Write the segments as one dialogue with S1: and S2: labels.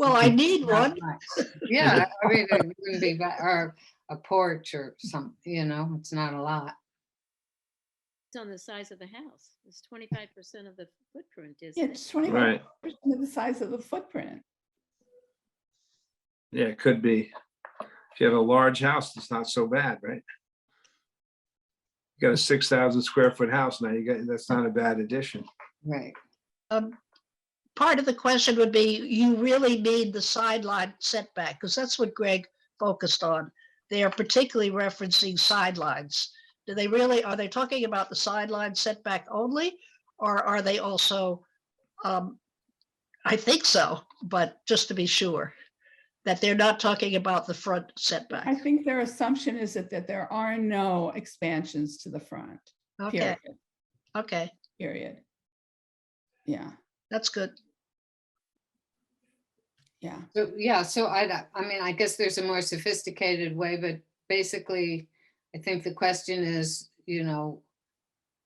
S1: Well, I need
S2: Uh,
S1: one.
S2: Yeah, I mean, it wouldn't be bad, or a porch or some, you know, it's not a lot.
S3: It's on the size of the house. It's twenty-five percent of the footprint,
S4: Yeah,
S3: isn't it?
S4: it's twenty-five
S5: Right,
S4: percent of the size of the footprint.
S5: yeah, it could be. If you have a large house, it's not so bad, right? You got a six thousand square foot house now, you got, that's not a bad addition.
S2: Right.
S1: Um, Part of the question would be, you really need the sideline setback, because that's what Greg focused on. They are particularly referencing sidelines. Do they really, are they talking about the sideline setback only? Or are they also, um, I think so, but just to be sure, that they're not talking about the front
S4: I
S1: setback.
S4: think their assumption is that, that there are no expansions to the front,
S1: Okay,
S4: period,
S1: okay,
S4: period. Yeah,
S1: that's good.
S4: yeah.
S2: So, yeah, so I, I mean, I guess there's a more sophisticated way, but basically, I think the question is, you know,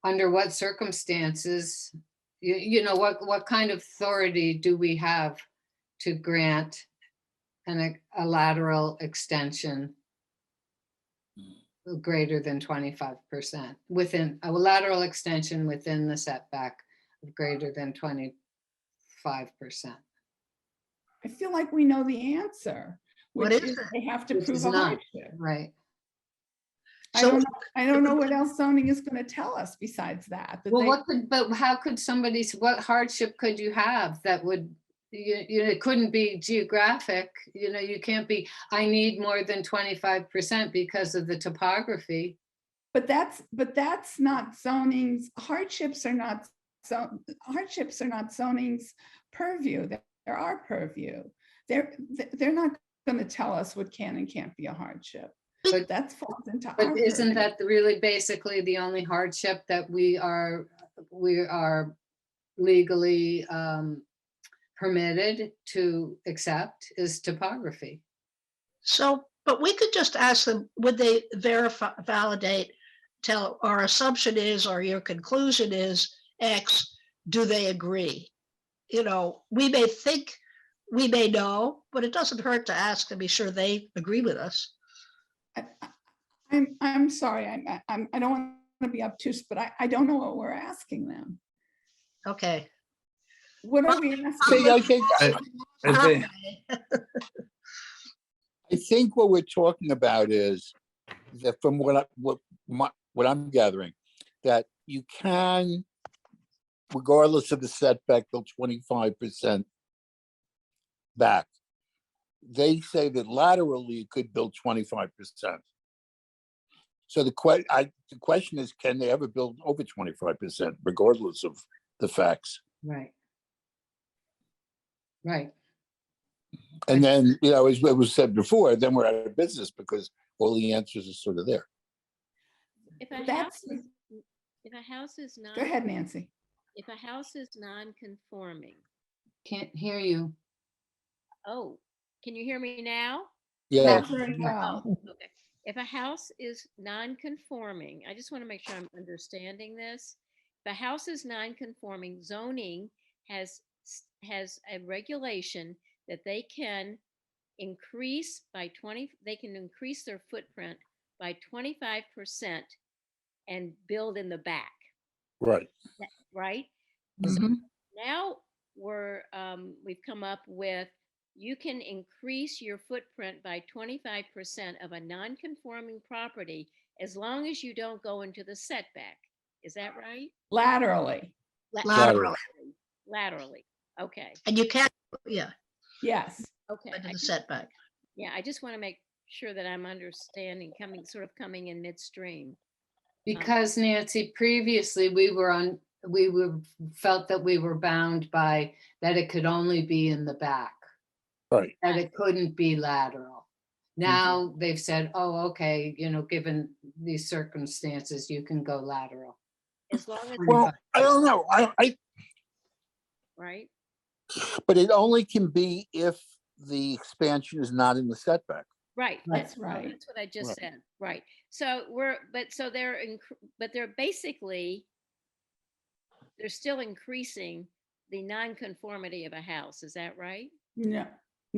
S2: under what circumstances, you, you know, what, what kind of authority do we have to grant an, a lateral extension greater than twenty-five percent within, a lateral extension within the setback of greater than twenty-five percent?
S4: I feel like we know the answer.
S1: What
S4: which
S1: is
S4: is They have to
S2: Which
S4: prove
S2: is
S4: a
S2: not.
S4: hardship.
S2: Right?
S4: I
S1: So-
S4: don't, know- I don't know what else zoning is gonna tell us besides that. that
S2: Well,
S4: they-
S2: what could, but how could somebody, s- what hardship could you have that would, you, you, know, it couldn't be geographic, you know, you can't be, I need more than twenty-five percent because of the topography.
S4: But that's, but that's not zoning's, hardships are not, so hardships are not zoning's purview. They're they're our purview. They're, th- they're not going to tell us what can and can't be a hardship. But
S2: But-
S4: that's falls into our.
S2: But isn't
S4: purview.
S2: that the- really basically the only hardship that we are, we are legally, um, permitted to accept is topography?
S1: So, but we could just ask them, would they verify, validate, tell, our assumption is, or your conclusion is X, do they agree? You know, we may think, we may know, but it doesn't hurt to ask and be sure they agree with us.
S4: I- I- I'm, I'm sorry, I'm, I- I'm, I don't want to be obtuse, but I, I don't know what we're asking them.
S1: Okay.
S4: What are we asking?
S6: See, I think, I
S5: I think,
S1: Okay.
S6: I think what we're talking about is that from what I, what my, what I'm gathering, that you can, regardless of the setback, go twenty-five percent back. They say that laterally you could build twenty-five percent. So the que, I, the question is, can they ever build over twenty-five percent regardless of the facts?
S2: Right. Right.
S6: And then, you know, as it was said before, then we're out of business because all the answers are sort of there.
S3: If a house
S4: That's-
S3: is, if a house is
S4: Go ahead,
S3: non,
S4: Nancy.
S3: if a house is non-conforming,
S2: Can't hear you.
S3: oh, can you hear me now?
S6: Yeah.
S4: Not very well.
S3: Oh, okay. If a house is non-conforming, I just want to make sure I'm understanding this. If a house is non-conforming, zoning has, s- has a regulation that they can increase by twenty, they can increase their footprint by twenty-five percent and build in the back,
S6: Right.
S3: right? now we're um, we've come up with you can increase your footprint by 25% of a non-conforming property as long as you don't go into the setback is that right
S4: Laterally,
S3: La-
S1: Laterally.
S3: laterally okay
S1: And you can't, yeah,
S4: yes.
S3: okay
S1: under
S3: I
S1: the
S3: just-
S1: setback.
S3: yeah i just want to make sure that i'm understanding coming sort of coming in midstream
S2: Because Nancy, previously, we were on, we were, felt that we were bound by that it could only be in the back,
S6: Right.
S2: that it couldn't be lateral. Now they've said, oh, okay, you know, given these circumstances, you can go lateral.
S3: as long as
S6: Well, I don't know. I, I,
S3: right
S6: but it only can be if the expansion is not in the setback.
S3: Right.
S2: Right.
S4: That's
S3: well,
S4: right.
S3: That's what I just
S6: Right.
S3: said, right. So we're, but so they're, incre- but they're basically, they're still increasing the nonconformity of a house, is that right?
S4: No,